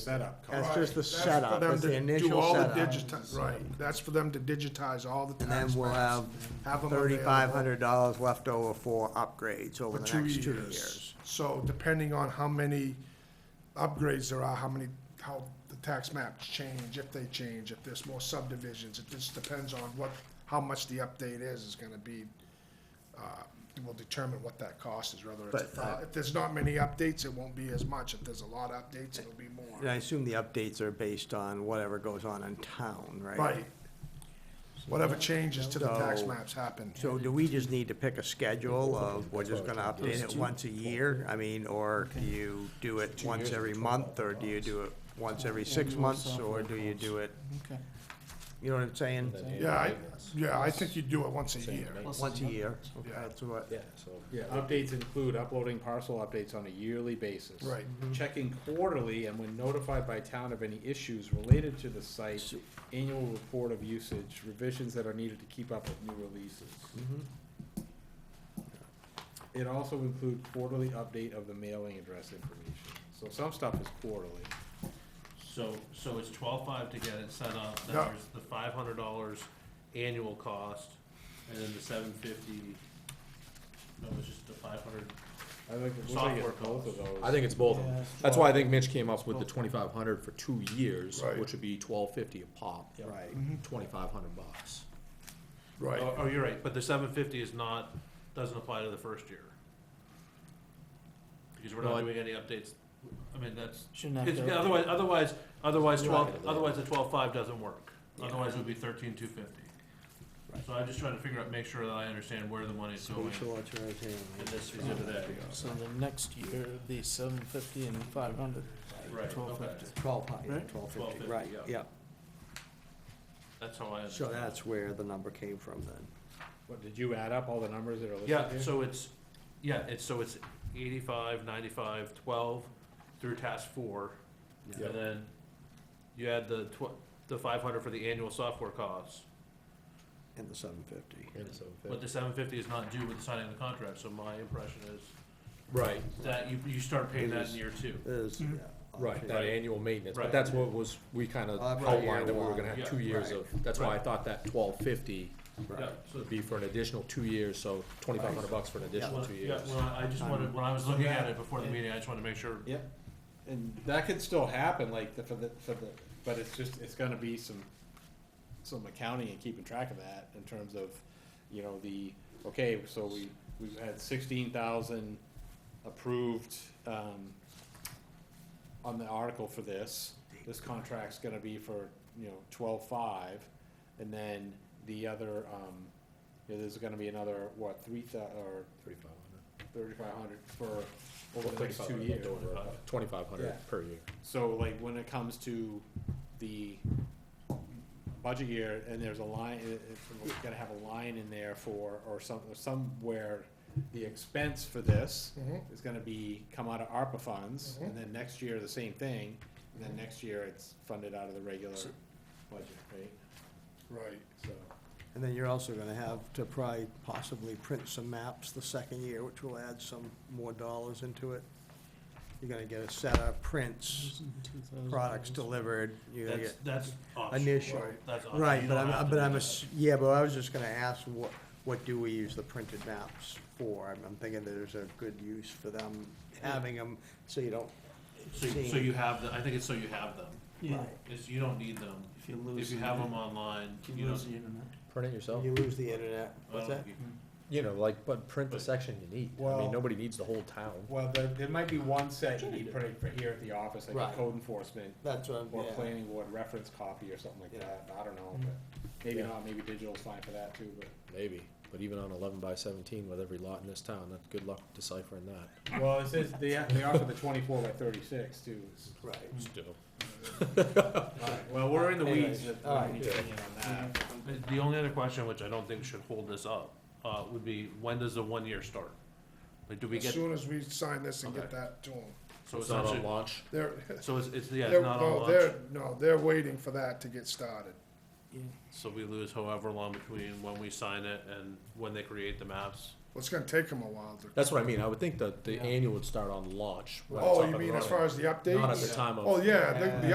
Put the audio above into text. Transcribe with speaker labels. Speaker 1: setup cost.
Speaker 2: That's just the
Speaker 3: Right, that's for
Speaker 2: setup,
Speaker 3: them
Speaker 2: that's the
Speaker 3: to do
Speaker 2: initial
Speaker 3: all the
Speaker 2: setup.
Speaker 3: digiti- Right, that's for them to digitize all the
Speaker 2: And
Speaker 3: tax
Speaker 2: then
Speaker 3: maps.
Speaker 2: we'll have
Speaker 3: have 'em
Speaker 2: thirty-five
Speaker 3: available
Speaker 2: hundred dollars left over for upgrades over
Speaker 3: for
Speaker 2: the
Speaker 3: two
Speaker 2: next two
Speaker 3: years.
Speaker 2: years.
Speaker 3: So depending on how many upgrades there are, how many, how the tax maps change, if they change, if there's more subdivisions, it just depends on what, how much the update is, is gonna be, uh, will determine what that cost is, whether it's, a
Speaker 2: But,
Speaker 3: thou-
Speaker 2: uh,
Speaker 3: if there's not many updates, it won't be as much. If there's a lot of updates, it'll be more.
Speaker 2: And I assume the updates are based on whatever goes on in town, right?
Speaker 3: Right. Whatever changes to the tax
Speaker 2: So-
Speaker 3: maps happen.
Speaker 2: So do we just need to pick a schedule of, we're just gonna update it
Speaker 4: Those two.
Speaker 2: once a year? I mean, or do you do it once
Speaker 1: years
Speaker 2: every
Speaker 1: is
Speaker 2: month, or do you do it once every six
Speaker 4: Annual
Speaker 2: months, or
Speaker 4: software
Speaker 2: do you
Speaker 4: costs.
Speaker 2: do it,
Speaker 4: Okay.
Speaker 2: you know what I'm saying?
Speaker 3: Yeah, I, yeah, I think you do it once a year.
Speaker 2: Once a year, okay,
Speaker 3: Yeah.
Speaker 2: that's what,
Speaker 4: Yeah, so.
Speaker 1: Yeah, updates include uploading parcel updates on a yearly basis.
Speaker 3: Right.
Speaker 5: Mm-hmm.
Speaker 1: Checking quarterly and when notified by town of any issues related to the site, annual report of usage, revisions that are needed to keep up with new releases.
Speaker 5: Mm-hmm.
Speaker 1: It also include quarterly update of the mailing address information. So some stuff is quarterly.
Speaker 5: So, so it's twelve-five to get it set up, then
Speaker 3: Yeah.
Speaker 5: there's the five hundred dollars annual cost, and then the seven fifty, no, it's just the five hundred.
Speaker 1: I think it looks like it's
Speaker 5: Software
Speaker 1: both of those.
Speaker 6: I think it's both of
Speaker 4: Yeah.
Speaker 6: them. That's why I think Mitch came up with the twenty-five hundred for two years,
Speaker 3: Right.
Speaker 6: which would be twelve fifty a pop.
Speaker 1: Right.
Speaker 6: Mm-hmm. Twenty-five hundred bucks.
Speaker 3: Right.
Speaker 5: Oh, oh, you're right, but the seven fifty is not, doesn't apply to the first year. Because we're
Speaker 6: No,
Speaker 5: not
Speaker 6: I-
Speaker 5: doing any updates, I mean, that's,
Speaker 4: Shouldn't have
Speaker 5: it's-
Speaker 4: to-
Speaker 5: otherwise, otherwise, otherwise
Speaker 6: You're
Speaker 5: twelve,
Speaker 6: right.
Speaker 5: otherwise the twelve-five doesn't work.
Speaker 6: Yeah.
Speaker 5: Otherwise it would be thirteen two fifty. So I'm just trying to figure out, make sure that I understand where the money's going
Speaker 2: Spiritual authoritarian.
Speaker 5: in this specific area.
Speaker 4: So the next year, the seven fifty and five hundred.
Speaker 5: Right,
Speaker 4: Twelve
Speaker 5: okay.
Speaker 4: fifty.
Speaker 2: Twelve, hu- yeah,
Speaker 4: Right?
Speaker 2: twelve
Speaker 5: Twelve
Speaker 2: fifty,
Speaker 5: fifty,
Speaker 2: right,
Speaker 5: yeah.
Speaker 2: yeah.
Speaker 5: That's how I.
Speaker 2: So
Speaker 5: understand.
Speaker 2: that's where the number came from then.
Speaker 1: What, did you add up all the numbers that are listed
Speaker 5: Yeah,
Speaker 1: here?
Speaker 5: so it's, yeah, it's, so it's eighty-five, ninety-five, twelve through task four.
Speaker 2: Yeah.
Speaker 5: And then you add the tw- the five hundred for the annual software costs,
Speaker 2: And the seven fifty.
Speaker 5: but the seven fifty is not due with the signing of the contract, so my impression is
Speaker 6: Right,
Speaker 5: that you, you start paying that
Speaker 2: It is-
Speaker 5: in year two.
Speaker 2: Is,
Speaker 5: Mm-hmm.
Speaker 2: yeah.
Speaker 6: right, that annual maintenance,
Speaker 5: Right.
Speaker 6: but that's what was, we kinda
Speaker 2: Right.
Speaker 6: outlined that we were gonna
Speaker 5: Yeah.
Speaker 6: have two years of, that's why I thought that twelve fifty
Speaker 5: Yeah, so,
Speaker 6: would be for an additional two years, so twenty-five hundred bucks for an additional
Speaker 5: well,
Speaker 6: two
Speaker 5: yeah,
Speaker 6: years.
Speaker 5: well, I just wanted, when I was looking at
Speaker 1: Yeah.
Speaker 5: it before the meeting, I just wanted to make sure,
Speaker 1: Yep. And that could still happen, like, the, for the, for the, but it's just, it's gonna be some, some accounting and keeping track of that in terms of, you know, the, okay, so we, we've had sixteen thousand approved, um, on the article for this, this contract's gonna be for, you know, twelve-five, and then the other, um, you know, there's gonna be another, what, three thou, or
Speaker 6: Thirty-five hundred.
Speaker 1: thirty-five hundred for, over the next two years.
Speaker 6: Twenty-five hundred
Speaker 1: Yeah.
Speaker 6: per year.
Speaker 1: So like when it comes to the budget year and there's a line, it, it's, we're gonna have a line in there for, or some, somewhere, the expense for this
Speaker 3: Mhm.
Speaker 1: is gonna be, come out of ARPA funds, and then next year, the same thing, and then next year, it's funded out of the regular budget, right?
Speaker 3: Right.
Speaker 1: So,
Speaker 2: And then you're also gonna have to probably possibly print some maps the second year, which will add some more dollars into it. You're gonna get a set of prints, products delivered, you're gonna
Speaker 5: that's,
Speaker 2: get
Speaker 5: Mm-hmm. that's optional,
Speaker 2: initial.
Speaker 5: that's optional.
Speaker 2: Right,
Speaker 5: You
Speaker 2: but
Speaker 5: don't have
Speaker 2: I'm,
Speaker 5: to
Speaker 2: but
Speaker 5: do
Speaker 2: I'm,
Speaker 5: that.
Speaker 2: ass- yeah, but I was just gonna ask, what, what do we use the printed maps for? I'm, I'm thinking there's a good use for them, having them, so you don't.
Speaker 5: So, you- so you have, the- I think it's so you have them,
Speaker 4: Yeah,
Speaker 2: Right.
Speaker 5: is you don't need them,
Speaker 4: if you
Speaker 5: if
Speaker 4: lose.
Speaker 5: you
Speaker 4: the
Speaker 5: have them
Speaker 4: internet,
Speaker 5: online,
Speaker 4: if
Speaker 5: you
Speaker 4: You
Speaker 5: don't.
Speaker 4: lose the internet.
Speaker 6: Print it
Speaker 1: Oh.
Speaker 6: yourself?
Speaker 2: You lose the internet,
Speaker 5: I
Speaker 2: what's
Speaker 5: don't
Speaker 2: that?
Speaker 5: think
Speaker 6: You know, like, but print the section you need. I
Speaker 1: Well-
Speaker 6: mean, nobody needs the whole town.
Speaker 1: well, there, there might be one set you need printed for here at the office, like
Speaker 2: Right.
Speaker 1: a code enforcement,
Speaker 2: That's what I'm,
Speaker 1: or
Speaker 2: yeah.
Speaker 1: planning board reference copy or something like
Speaker 2: Yeah.
Speaker 1: that, I don't know, but maybe
Speaker 6: Yeah.
Speaker 1: not, maybe digital's fine for that too, but.
Speaker 6: Maybe, but even on eleven by seventeen with every lot in this town, that, good luck deciphering that.
Speaker 1: Well, it says they, they offer the twenty-four by thirty-six too.
Speaker 2: Right.
Speaker 6: Still.
Speaker 1: Well, we're in the weeds.
Speaker 2: Anyways,
Speaker 1: but
Speaker 2: all
Speaker 1: we
Speaker 2: right.
Speaker 1: need to get on that.
Speaker 5: Uh, The only other question, which I don't think should hold this up, uh, would be when does the one year start? Like, do we
Speaker 3: As
Speaker 5: get,
Speaker 3: soon as we sign this and get
Speaker 5: Okay.
Speaker 3: that to them,
Speaker 5: so
Speaker 6: It's not on
Speaker 5: essentially,
Speaker 6: launch.
Speaker 3: they're,
Speaker 5: so it's, it's, yeah,
Speaker 3: they're,
Speaker 5: it's not on
Speaker 3: no,
Speaker 5: launch,
Speaker 3: they're, no, they're waiting for that to get started.
Speaker 4: Yeah.
Speaker 5: so we lose however long between when we sign it and when they create the maps.
Speaker 3: Well, it's gonna take them a while to.
Speaker 6: That's what I mean, I would think that the
Speaker 4: Yeah.
Speaker 6: annual would start on launch. when it's
Speaker 3: Oh,
Speaker 6: up
Speaker 3: you
Speaker 6: and
Speaker 3: mean as
Speaker 6: running,
Speaker 3: far as the update?
Speaker 6: Not at the time of.
Speaker 3: Oh, yeah, the, the